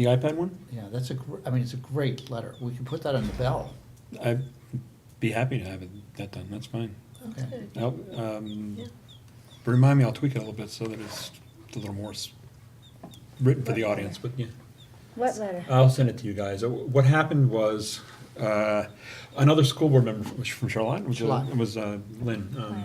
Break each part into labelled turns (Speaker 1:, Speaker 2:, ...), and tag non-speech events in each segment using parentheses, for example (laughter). Speaker 1: The iPad one?
Speaker 2: Yeah, that's a, gr- I mean, it's a great letter. We can put that on the bell.
Speaker 1: I'd be happy to have it, that done, that's fine.
Speaker 2: Okay.
Speaker 1: I'll, um, but remind me, I'll tweak it a little bit so that it's a little more s- written for the audience, but yeah.
Speaker 3: What letter?
Speaker 1: I'll send it to you guys. Uh, What happened was, uh, another school board member from from Charlotte, which uh,
Speaker 2: Charlotte.
Speaker 1: was uh, Lynn, um,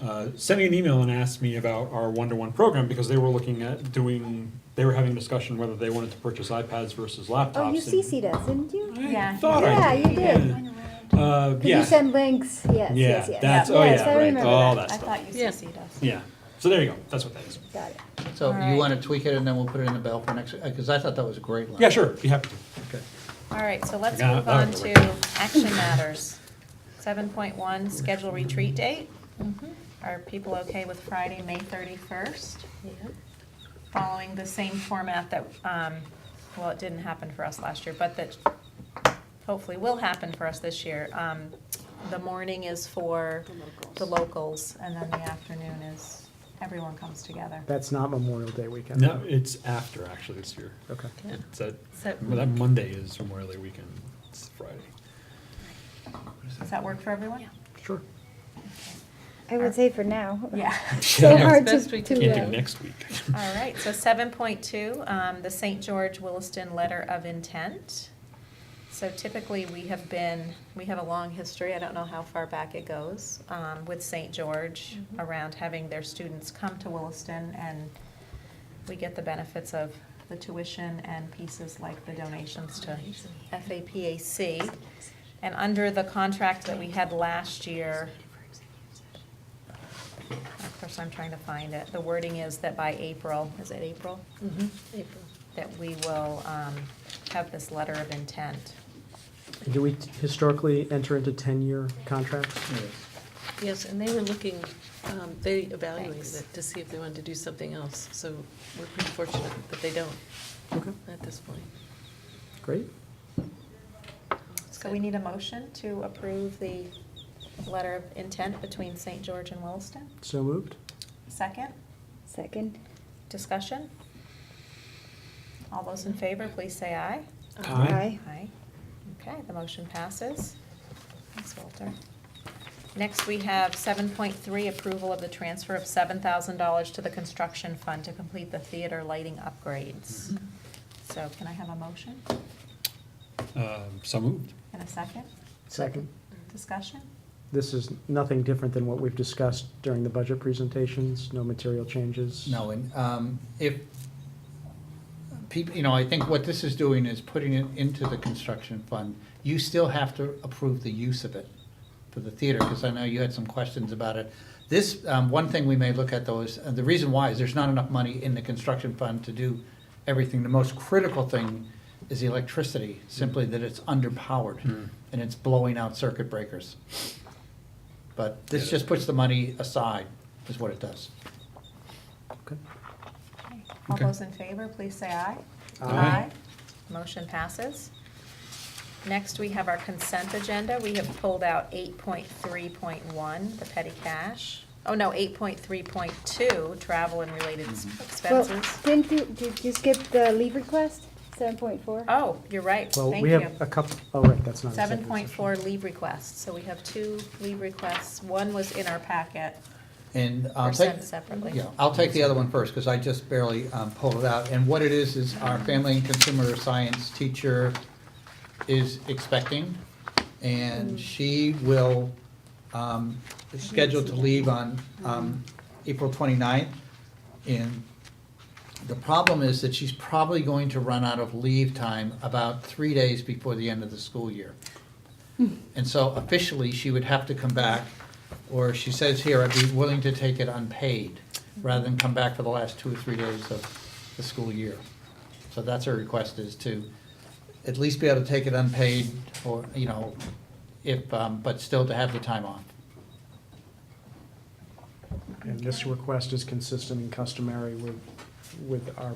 Speaker 1: uh, sent me an email and asked me about our one-to-one program because they were looking at doing, they were having a discussion whether they wanted to purchase iPads versus laptops.
Speaker 3: Oh, you
Speaker 1: and-
Speaker 3: CC'd us, didn't you?
Speaker 1: I
Speaker 4: Yeah.
Speaker 1: thought I
Speaker 3: Yeah,
Speaker 1: did.
Speaker 3: you did.
Speaker 1: Yeah. Uh,
Speaker 3: Did
Speaker 1: yeah.
Speaker 3: you send links? Yes,
Speaker 1: Yeah,
Speaker 3: yes, yes.
Speaker 1: that's, oh
Speaker 3: Yes, I
Speaker 1: yeah, right,
Speaker 3: remember
Speaker 1: all
Speaker 3: that.
Speaker 1: that
Speaker 4: I
Speaker 1: stuff.
Speaker 4: thought you
Speaker 5: Yeah.
Speaker 4: CC'd us.
Speaker 1: Yeah, so there you go, that's what that is.
Speaker 3: Got it.
Speaker 2: So you
Speaker 4: Alright.
Speaker 2: want to tweak it and then we'll put it in the bell for next, because I thought that was a great letter.
Speaker 1: Yeah, sure, be happy to.
Speaker 2: Okay.
Speaker 4: All right, so let's
Speaker 1: Yeah,
Speaker 4: move
Speaker 1: that
Speaker 4: on
Speaker 1: would
Speaker 4: to
Speaker 1: work.
Speaker 4: action matters. Seven point one, schedule retreat date. Mm-hmm. Are people okay with Friday, May thirty-first? Following the same format that, um, well, it didn't happen for us last year, but that hopefully will happen for us this year. Um, the morning is for the locals, and then the afternoon is, everyone comes together.
Speaker 6: That's not Memorial Day weekend.
Speaker 1: No, it's after actually this year.
Speaker 6: Okay.
Speaker 1: It's that,
Speaker 4: So,
Speaker 1: well, that Monday is Memorial Day weekend, it's Friday.
Speaker 4: does that work for everyone?
Speaker 6: Sure.
Speaker 3: I would say for now.
Speaker 1: (laughs)
Speaker 4: Yeah.
Speaker 3: So
Speaker 1: Yeah.
Speaker 3: hard to,
Speaker 5: Best we can
Speaker 3: to,
Speaker 1: Can't do
Speaker 3: uh,
Speaker 1: next week.
Speaker 4: All right,
Speaker 1: (laughs)
Speaker 4: so seven point two, um, the St. George Williston Letter of Intent. So typically, we have been, we have a long history, I don't know how far back it goes, um, with St. George around having their students come to Williston and we get the benefits of the tuition and pieces like the donations to FAPAC. And under the contract that we had last year, of course, I'm trying to find it, the wording is that by April, is it April?
Speaker 5: Mm-hmm.
Speaker 4: That we will um, have this letter of intent.
Speaker 6: Do we historically enter into ten-year contracts?
Speaker 2: Yes.
Speaker 5: Yes, and they were looking, um, they evaluated
Speaker 4: Thanks.
Speaker 5: it to see if they wanted to do something else, so we're pretty fortunate that they don't
Speaker 6: Okay,
Speaker 5: at this point.
Speaker 6: great.
Speaker 4: So we need a motion to approve the letter of intent between St. George and Williston.
Speaker 6: So moved.
Speaker 4: Second,
Speaker 3: second.
Speaker 4: discussion? All those in favor, please say aye.
Speaker 6: Aye.
Speaker 4: Aye. Okay, the motion passes. Thanks, Walter. Next, we have seven point three, approval of the transfer of seven thousand dollars to the construction fund to complete the theater lighting upgrades. So can I have a motion
Speaker 1: Um, So moved.
Speaker 4: and a second?
Speaker 6: Second.
Speaker 4: Discussion?
Speaker 6: This is nothing different than what we've discussed during the budget presentations, no material changes.
Speaker 2: No, and um, if, people, you know, I think what this is doing is putting it into the construction fund. You still have to approve the use of it for the theater, because I know you had some questions about it. This, um, one thing we may look at though is, uh, the reason why is there's not enough money in the construction fund to do everything. The most critical thing is the electricity, simply that it's underpowered and it's blowing out circuit breakers. But this just puts the money aside, is what it does.
Speaker 6: Okay.
Speaker 4: Okay. All
Speaker 1: Okay.
Speaker 4: those in favor, please say aye.
Speaker 6: Aye.
Speaker 4: Motion passes. Next, we have our consent agenda. We have pulled out eight point three point one, the petty cash. Oh, no, eight point three point two, travel and related s-
Speaker 3: Well,
Speaker 4: expenses.
Speaker 3: didn't you, did you skip the leave request? Seven point four?
Speaker 4: Oh, you're right,
Speaker 6: Well,
Speaker 4: thank
Speaker 6: we
Speaker 4: you.
Speaker 6: have a couple, oh, right, that's not.
Speaker 4: Seven
Speaker 6: executive
Speaker 4: point
Speaker 6: session.
Speaker 4: four leave requests, so we have two leave requests. One was in our packet,
Speaker 2: And I'll
Speaker 4: or
Speaker 2: take,
Speaker 4: sent separately.
Speaker 2: yeah, I'll take the other one first, because I just barely um, pulled it out. And what it is, is our family and consumer science teacher is expecting, and she will, um, is scheduled to leave on um, April 29th. And the problem is that she's probably going to run out of leave time about three days before the end of the school year. And so officially, she would have to come back, or she says here, I'd be willing to take it unpaid, rather than come back for the last two or three days of the school year. So that's her request is to at least be able to take it unpaid, or, you know, if, um, but still to have the time off.
Speaker 6: And this request is consistent and customary with, with our,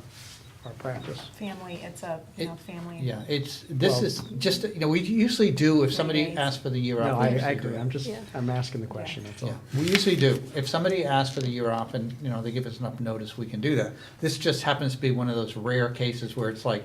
Speaker 6: our practice.
Speaker 4: Family, it's a, you
Speaker 2: It-
Speaker 4: know, family.
Speaker 2: Yeah, it's, this
Speaker 6: Well-
Speaker 2: is just, you know, we usually do, if
Speaker 4: Three
Speaker 2: somebody
Speaker 4: days.
Speaker 2: asks for the year
Speaker 6: No,
Speaker 2: off.
Speaker 6: I, I
Speaker 2: we usually do
Speaker 6: agree.
Speaker 2: it.
Speaker 6: I'm just,
Speaker 5: Yeah.
Speaker 6: I'm asking the question, that's
Speaker 2: Yeah,
Speaker 6: all.
Speaker 2: we usually do. If somebody asks for the year off and, you know, they give us enough notice, we can do that. This just happens to be one of those rare cases where it's like,